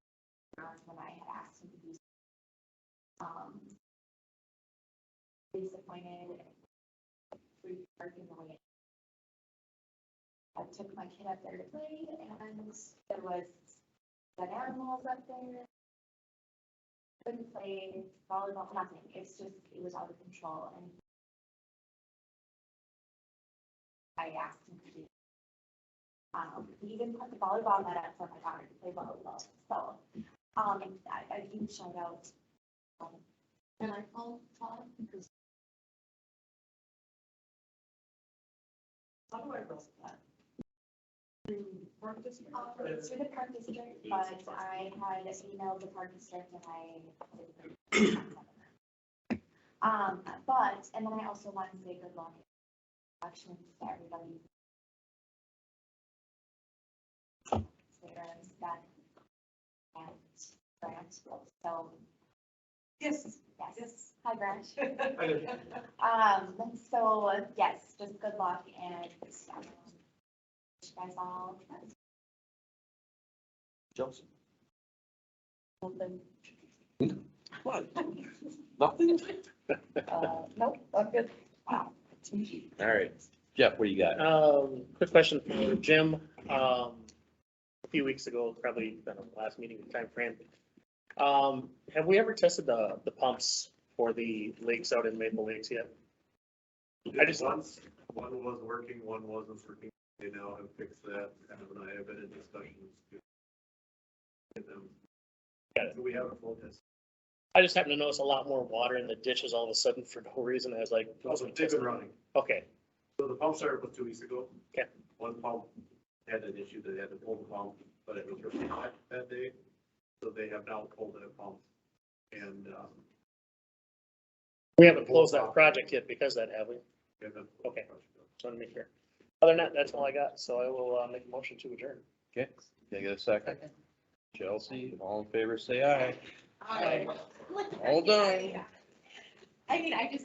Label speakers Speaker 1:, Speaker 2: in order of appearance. Speaker 1: hours when I had asked him to be. Um. Disappointed. Free park in the way. I took my kid up there to play and there was dead animals up there. Couldn't play volleyball, nothing. It's just, it was out of control and. I asked him to do um, we even put the volleyball net up for my daughter to play volleyball. So, um, I, I huge shout out. Um, and I called Todd because.
Speaker 2: How do I roll that? Work this year?
Speaker 1: Um, it's through the park district, but I had emailed the park district and I. didn't Um, but, and then I also wanted to say good luck. Actions to everybody. Sarah's that. um, And Grant, so,
Speaker 2: Yes,
Speaker 1: yes,
Speaker 2: yes.
Speaker 1: hi Grant.
Speaker 3: I did.
Speaker 1: Um, so yes, just good luck and um, wish you guys all
Speaker 4: Jumps.
Speaker 1: something.
Speaker 4: What? Nothing?
Speaker 1: Uh, nope, I'm good.
Speaker 4: All right. Jeff, what do you got?
Speaker 5: Um, quick question for Jim. Um, a few weeks ago, probably been on the last meeting time frame. Um, have we ever tested the, the pumps for the lakes out in Maple Lakes yet? I just-
Speaker 3: Once, one was working, one wasn't working, they now have fixed that, and I have been in discussions. to Get them.
Speaker 5: Got it.
Speaker 3: So we have a full test.
Speaker 5: I just happen to notice a lot more water in the ditches all of a sudden for no reason. I was like.
Speaker 3: Also, they've been running,
Speaker 5: Okay,
Speaker 3: so the pump started was two weeks ago.
Speaker 5: Okay.
Speaker 3: One pump had an issue, that they had to pull the pump, but it was really hot that day, so they have now pulled that pump. And, um,
Speaker 5: we haven't closed that project yet because of that, have we?
Speaker 3: they have.
Speaker 5: Okay. Just want to make sure. Other than that, that's all I got. So I will, uh, make a motion to adjourn.
Speaker 4: Okay, can I get a second? Chelsea, all in favor, say aye.
Speaker 2: Hi.
Speaker 4: All done.
Speaker 1: I mean, I just